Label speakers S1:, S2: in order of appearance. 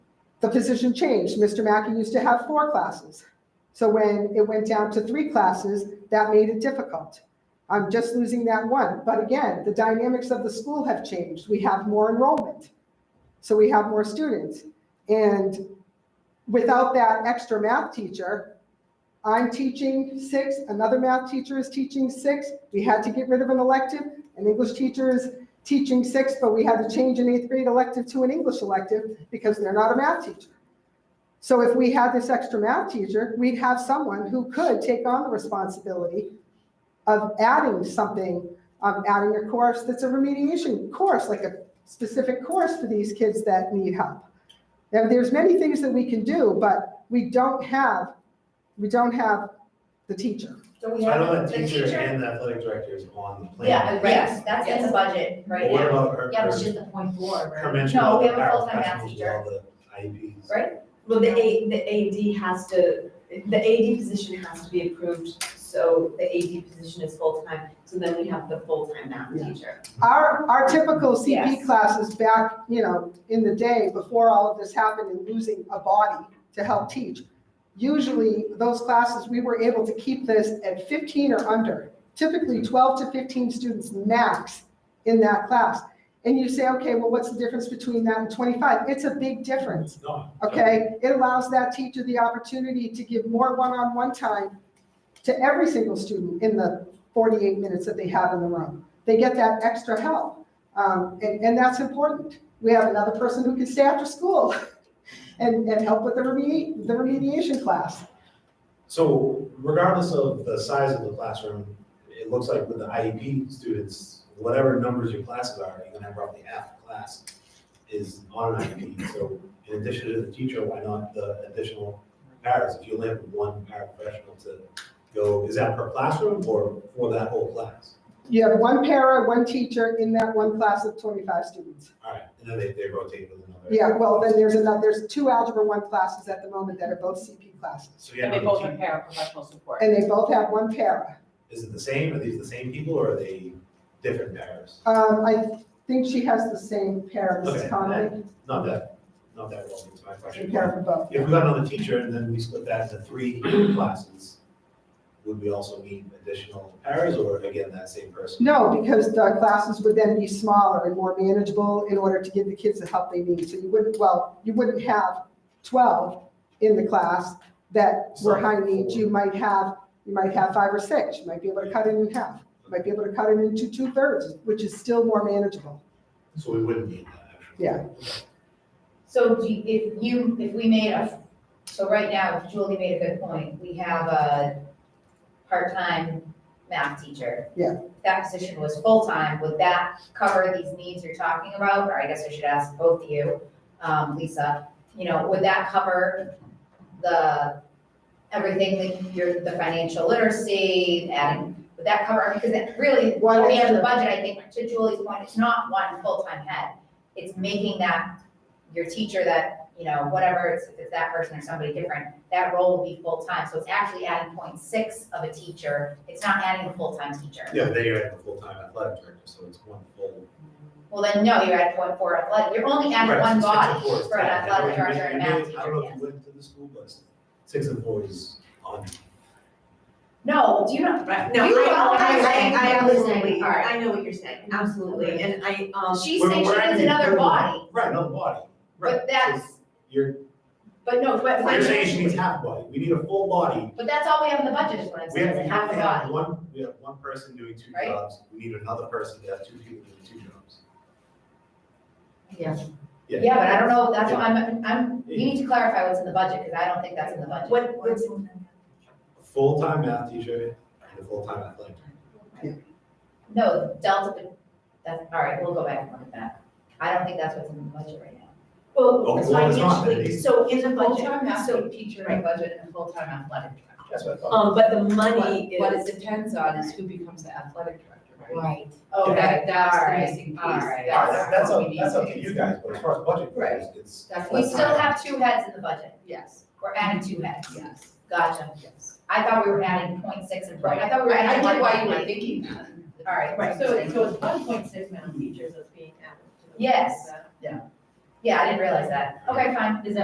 S1: the position changed. Mr. Mackey used to have four classes. So when it went down to three classes, that made it difficult. I'm just losing that one. But again, the dynamics of the school have changed. We have more enrollment. So we have more students. And without that extra math teacher, I'm teaching six, another math teacher is teaching six. We had to get rid of an elective. An English teacher is teaching six, but we had to change an eighth grade elective to an English elective because they're not a math teacher. So if we had this extra math teacher, we'd have someone who could take on the responsibility of adding something, um, adding a course that's a remediation course, like a specific course for these kids that need help. Now, there's many things that we can do, but we don't have, we don't have the teacher.
S2: So we
S3: I
S2: have
S3: know
S2: the
S3: the teacher
S2: teacher.
S3: and the athletic director is on the plan.
S2: Yeah,
S4: Yes,
S2: right, that's in the
S4: yes.
S2: budget
S3: But
S2: right
S3: What
S2: now,
S3: about her,
S4: Yeah,
S3: her
S4: it's just the point four,
S3: her
S4: right?
S3: mention
S2: No,
S3: of
S2: we
S3: the
S2: have a full-time math
S3: paraprofessionals with
S2: teacher.
S3: all the IEPs?
S2: Right.
S5: Well, the A, the AD has to, the AD position has to be approved, so the AD position is full-time, so then we have the full-time math
S1: Yeah.
S5: teacher.
S1: Our, our typical CP
S5: Yes.
S1: classes back, you know, in the day, before all of this happened and losing a body to help teach, usually those classes, we were able to keep this at 15 or under, typically 12 to 15 students max in that class. And you say, okay, well, what's the difference between that and 25? It's a big difference.
S3: No.
S1: okay? It allows that teacher the opportunity to give more one-on-one time to every single student in the 48 minutes that they have in the room. They get that extra help, um, and, and that's important. We have another person who can stay after school and, and help with the remedi, the remediation class.
S3: So regardless of the size of the classroom, it looks like with the IEP students, whatever numbers your classes are, you're gonna have roughly half the class is on an IEP. So in addition to the teacher, why not the additional paras? If you only have one paraprofessional to go, is that per classroom or for that whole class?
S1: You have one para, one teacher in that one class of 25 students.
S3: All right, and then they, they rotate with another.
S1: Yeah, well, then there's another, there's two Algebra 1 classes at the moment that are both CP classes,
S3: So you
S6: And
S3: have
S6: they
S3: another
S6: both
S3: team.
S6: have paraprofessional support.
S1: and they both have one para.
S3: Is it the same? Are these the same people or are they different pairs?
S1: Um, I think she has the same pair,
S3: Okay.
S1: Mrs. Conley,
S3: Not that, not that relevant to my
S1: and
S3: question.
S1: pair for both.
S3: If we got another teacher and then we split that into three classes, would we also need additional pairs or again, that same person?
S1: No, because the classes would then be smaller and more manageable in order to give the kids the help they need. So you wouldn't, well, you wouldn't have 12 in the class that were high needs. You might have, you might have five or six. You might be able to cut it in half. You might be able to cut it into two-thirds, which is still more manageable.
S3: So we wouldn't need that actually.
S1: Yeah.
S4: So do you- if you, if we made a, so right now, Julie made a good point, we have a part-time math teacher.
S1: Yeah.
S4: That position was full-time, would that cover these needs you're talking about, or I guess I should ask both of you, um, Lisa, you know, would that cover the, everything that you're, the financial literacy, adding, would that cover, because it really,
S1: One
S4: at the end of the
S1: extra-
S4: budget, I think, to Julie's point, it's not one full-time head, it's making that your teacher that, you know, whatever, it's, if it's that person or somebody different, that role will be full-time. So it's actually adding point six of a teacher, it's not adding a full-time teacher.
S3: Yeah, then you have a full-time athletic director, so it's one full.
S4: Well, then, no, you're at point four athletic, you're only adding one
S3: Right, so
S4: body
S3: six and four is
S4: for an
S3: ten. I know
S4: athletic
S3: you may-
S4: director and
S3: you may-
S4: math
S3: I
S4: teacher,
S3: don't know if
S4: yes.
S3: you went to the school, but six and four is on.
S4: No, do you not, right,
S5: No,
S4: you
S5: I, Mm-hmm.
S4: all have
S5: I, I, I
S4: the same
S5: absolutely,
S4: part.
S5: I know what you're saying, absolutely, and I, um,
S4: She's
S3: We're-
S4: saying she
S3: we're
S4: needs
S3: adding
S4: another
S3: another-
S4: body,
S3: Right, another body. Right.
S4: but
S3: So
S4: that's,
S3: You're,
S4: but no, but.
S3: you're saying she needs half body. We need a full body
S4: But that's all we have in the budget is what I'm
S3: We
S4: saying,
S3: have,
S4: is
S3: we
S4: half
S3: have
S4: a
S3: to
S4: body.
S3: have one, we have one person doing two
S4: Right?
S3: jobs, we need another person to have two people doing two jobs.
S5: Yeah.
S3: Yeah.
S4: Yeah, but I don't know, that's why I'm, I'm, you need to clarify what's in the budget, because I don't think that's in the budget.
S5: what, what's,
S3: A full-time math teacher and a full-time athletic. director.
S4: No, Delta, that's, all right, we'll go back and look at that. I don't think that's what's in the budget right now.
S3: Oh,
S5: well,
S3: well, it's not,
S5: financially,
S3: maybe.
S5: so in the budget, so,
S4: teacher
S5: in
S4: budget and a full-time athletic director.
S3: That's what I thought.
S5: um, but the money
S6: What
S5: is,
S6: it depends on is who becomes the athletic director, right?
S5: right,
S4: Oh, Okay,
S6: That- that's the
S4: all right,
S6: missing piece.
S4: all right.
S3: All right,
S6: that's
S3: That's,
S6: what
S3: up-
S6: we
S3: that's
S6: need
S3: up
S6: to
S3: to
S6: do.
S3: you guys, but as far as budget
S6: Right.
S3: goes, it's,
S6: That's
S4: We
S6: what's.
S4: still have two heads in the budget.
S6: Yes,
S4: We're adding two heads.
S6: yes,
S4: Gotcha.
S6: yes.
S4: I thought we were adding point six and point, I thought we were
S6: I
S4: adding
S6: get
S4: one
S6: why you
S4: point
S6: were
S4: eight.
S6: thinking that.
S4: All right.
S5: Right,
S4: so- so
S5: it's one point six million teachers that's being added to
S4: Yes. Yeah, I didn't realize that. Okay, fine. Is that